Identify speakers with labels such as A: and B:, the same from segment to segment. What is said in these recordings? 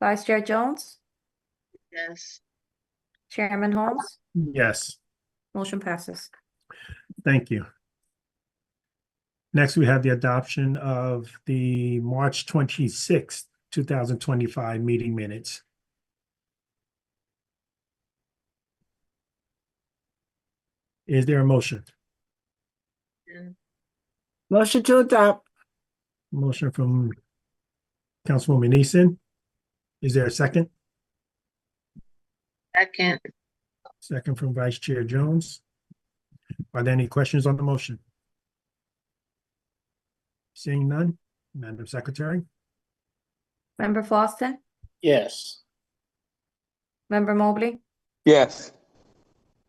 A: Vice Chair Jones,
B: Yes.
A: Chairman Holmes,
C: Yes,
A: motion passes.
C: thank you. Next, we have the adoption of the March twenty-sixth, two thousand twenty-five meeting minutes. Is there a motion?
D: Motion to adopt.
C: Motion from Councilwoman Eason. Is there a second?
B: Second,
C: Second from Vice Chair Jones. Are there any questions on the motion? Seeing none, Madam Secretary?
A: Member Flossin,
D: Yes.
A: Member Mobley,
E: yes,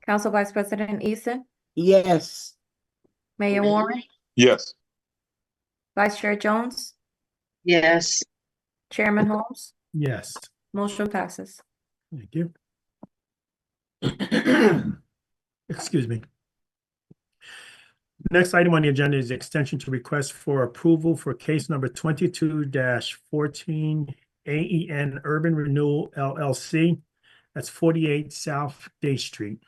A: Council Vice President Eason,
D: Yes.
A: Mayor Warren,
E: yes,
A: Vice Chair Jones,
B: yes,
A: Chairman Holmes,
C: Yes,
A: motion passes.
C: thank you. Excuse me. Next item on the agenda is the extension to request for approval for case number twenty-two fourteen AEN Urban Renewal LLC. That's forty-eight South Day Street.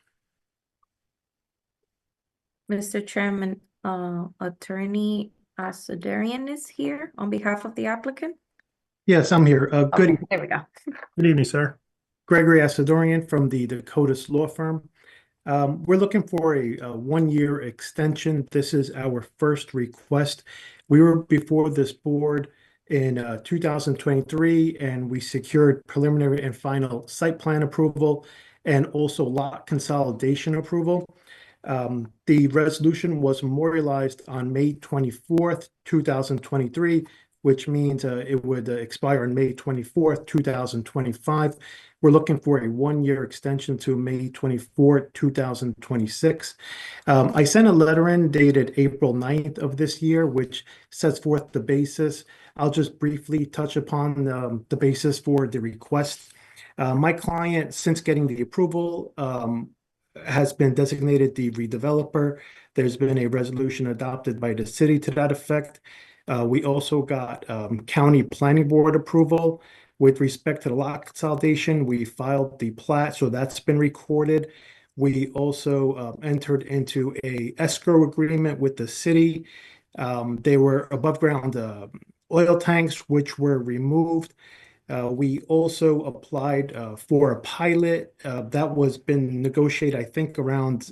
A: Mr. Chairman, uh, Attorney Asadarian is here on behalf of the applicant.
F: Yes, I'm here. Uh,
A: Okay,
F: good,
A: There we go.
C: Good evening, sir.
F: Gregory Asadorian from the Dakotas Law Firm. Um, we're looking for a, uh one-year extension. This is our first request. We were before this board in uh, 2023, and we secured preliminary and final site plan approval and also lot consolidation approval. Um, the resolution was memorialized on May 24th, 2023, which means uh, it would uh, expire on May 24th, 2025. We're looking for a one-year extension to May 24, 2026. Um, I sent a letter in dated April 9th of this year, which sets forth the basis. I'll just briefly touch upon um, the basis for the request. Uh, my client, since getting the approval, um, has been designated the redeveloper. There's been a resolution adopted by the city to that effect. Uh, we also got um, county planning board approval. With respect to the lot consolidation, we filed the plat, so that's been recorded. We also uh, entered into a escrow agreement with the city. Um, They were above ground uh, oil tanks, which were removed. Uh, We also applied uh, for a pilot uh, that was been negotiated, I think, around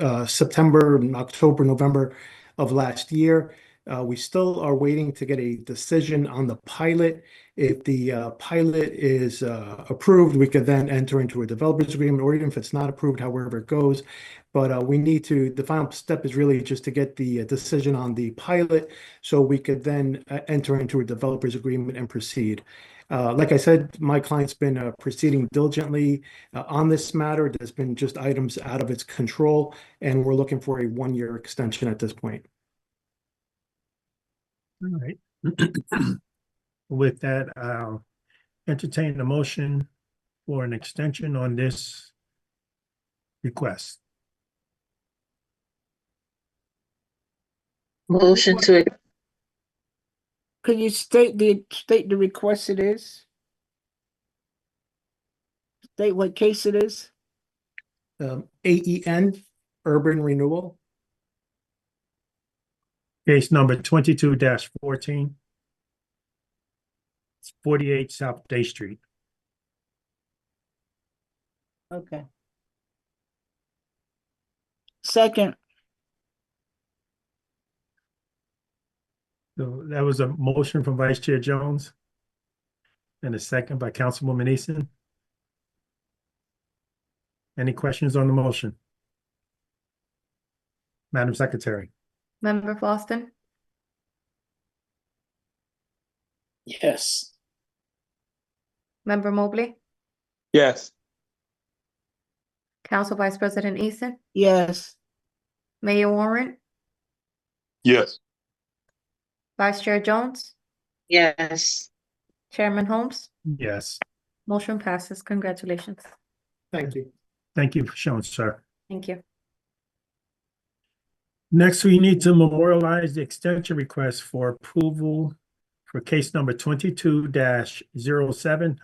F: uh, September, October, November of last year. Uh, We still are waiting to get a decision on the pilot. If the uh, pilot is uh, approved, we could then enter into a developer's agreement, or even if it's not approved, however it goes. But uh, we need to, the final step is really just to get the uh, decision on the pilot, so we could then uh, enter into a developer's agreement and proceed. Uh, Like I said, my client's been uh, proceeding diligently uh, on this matter. There's been just items out of its control, and we're looking for a one-year extension at this point.
C: All right. With that, I'll entertain a motion for an extension on this request.
B: motion to,
D: Could you state the, state the request it is? State what case it is?
F: Um, AEN, Urban Renewal.
C: Case number twenty-two fourteen. It's Forty-eight South Day Street.
D: Okay. Second,
C: So that was a motion from Vice Chair Jones. And a second by Councilwoman Eason. Any questions on the motion? Madam Secretary?
A: Member Flossin,
D: yes.
A: Member Mobley,
E: yes,
A: Council Vice President Eason,
D: Yes,
A: Mayor Warren,
E: yes,
A: Vice Chair Jones,
B: yes,
A: Chairman Holmes,
C: Yes.
A: motion passes. Congratulations.
F: Thank you.
C: Thank you for showing, sir.
A: Thank you.
C: Next, we need to memorialize the extension request for approval for case number twenty-two 7